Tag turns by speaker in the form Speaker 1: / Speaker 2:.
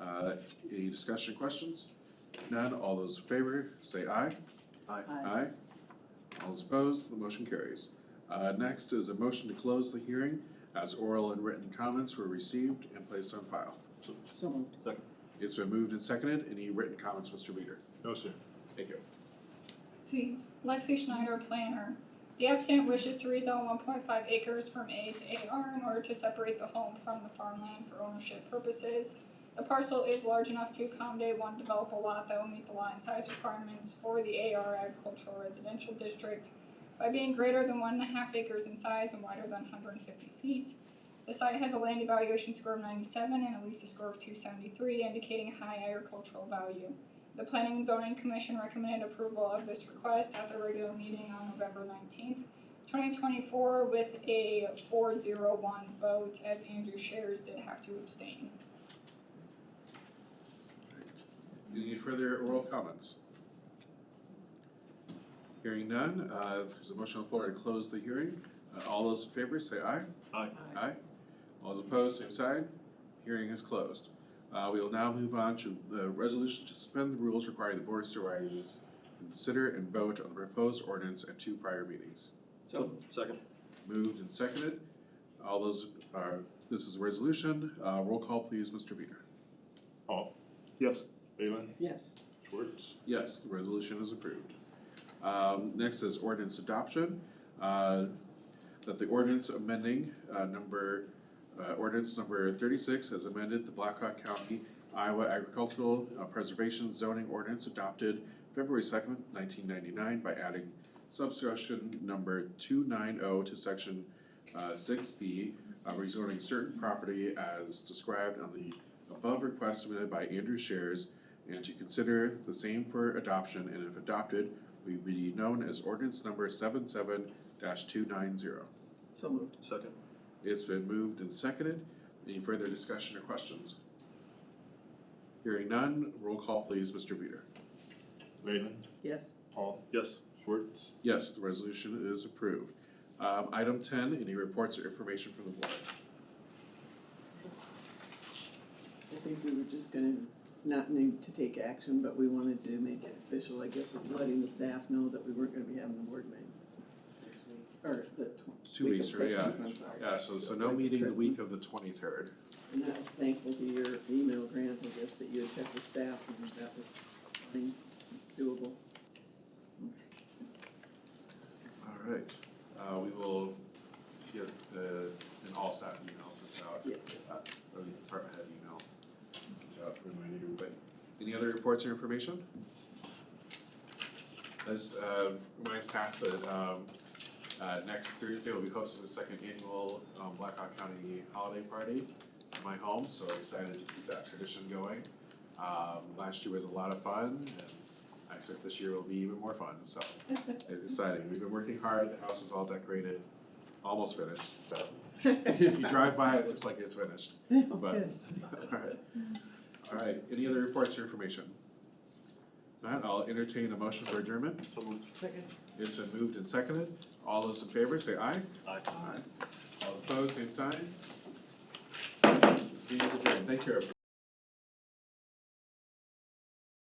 Speaker 1: Uh, any discussion, questions? None, all those in favor, say aye.
Speaker 2: Aye.
Speaker 1: Aye. All those opposed, the motion carries. Uh, next is a motion to close the hearing as oral and written comments were received and placed on file.
Speaker 2: So moved. Second.
Speaker 1: It's been moved and seconded. Any written comments, Mr. Leader?
Speaker 3: No, sir.
Speaker 1: Thank you.
Speaker 4: See, Lexi Schneider, planner. The applicant wishes to rezone one point five acres from A to AR in order to separate the home from the farmland for ownership purposes. The parcel is large enough to accommodate one developable lot that will meet the lot and size requirements for the AR agricultural residential district by being greater than one and a half acres in size and wider than hundred and fifty feet. The site has a land evaluation score of ninety-seven and a Lisa score of two seventy-three, indicating high agricultural value. The Planning and Zoning Commission recommended approval of this request at their regular meeting on November nineteenth, twenty twenty-four with a four zero one vote as Andrew Shares did have to abstain.
Speaker 1: Any further oral comments? Hearing none, uh, there's a motion on the floor to close the hearing. Uh, all those in favor, say aye.
Speaker 3: Aye.
Speaker 1: Aye. All those opposed, same side. Hearing is closed. Uh, we will now move on to the resolution to suspend the rules requiring the board of supervisors to consider and vote on the proposed ordinance at two prior meetings.
Speaker 2: So moved. Second.
Speaker 1: Moved and seconded. All those, uh, this is a resolution. Uh, roll call please, Mr. Peter.
Speaker 3: Hall. Yes. Leyland.
Speaker 5: Yes,
Speaker 3: Schwartz.
Speaker 1: Yes, the resolution is approved. Um, next is ordinance adoption, uh, that the ordinance amending, uh, number, uh, ordinance number thirty-six has amended the Blackhawk County Iowa Agricultural uh, Preservation Zoning Ordinance adopted February second, nineteen ninety-nine by adding subsection number two nine oh to section, uh, six B, uh, rezoning certain property as described on the above request submitted by Andrew Shares and to consider the same for adoption, and if adopted, will be known as ordinance number seven two nine zero.
Speaker 5: so moved.
Speaker 2: Second.
Speaker 1: It's been moved and seconded. Any further discussion or questions? Hearing none, roll call please, Mr. Peter.
Speaker 3: Leyland.
Speaker 5: Yes,
Speaker 3: Hall.
Speaker 2: Yes.
Speaker 3: Schwartz.
Speaker 1: Yes, the resolution is approved. Um, item ten, any reports or information from the board?
Speaker 5: I think we were just gonna not need to take action, but we wanted to make it official, I guess, of letting the staff know that we weren't gonna be having the board meeting. next week, Or the tw-
Speaker 1: Two
Speaker 5: week
Speaker 1: weeks,
Speaker 5: of
Speaker 1: right, yeah.
Speaker 5: Christmas, I'm sorry.
Speaker 1: Yeah, so, so no meeting the week
Speaker 5: Christmas.
Speaker 1: of the twenty-third.
Speaker 5: And I was thankful to your email, Grant, I guess, that you had checked the staff and that was fine, doable.
Speaker 1: All right, uh, we will get the, an all staff email sent out.
Speaker 5: Yeah.
Speaker 1: uh, At least department head email. sent out to remind everybody. Any other reports or information? This, uh, reminds staff that, um, uh, next Thursday, we'll be hosting the second annual, um, Blackhawk County Holiday Party at my home, so I'm excited to keep that tradition going. Um, last year was a lot of fun, and I expect this year will be even more fun, so it's exciting. We've been working hard. The house is all decorated, almost finished. So if you drive by, it looks like it's finished. But
Speaker 5: Good.
Speaker 1: all right, all right. Any other reports or information? Not. I'll entertain a motion for adjournment.
Speaker 2: So moved.
Speaker 5: Second.
Speaker 1: It's been moved and seconded. All those in favor, say aye.
Speaker 2: Aye.
Speaker 1: All opposed, same sign. This meeting is adjourned. Thank you. everyone.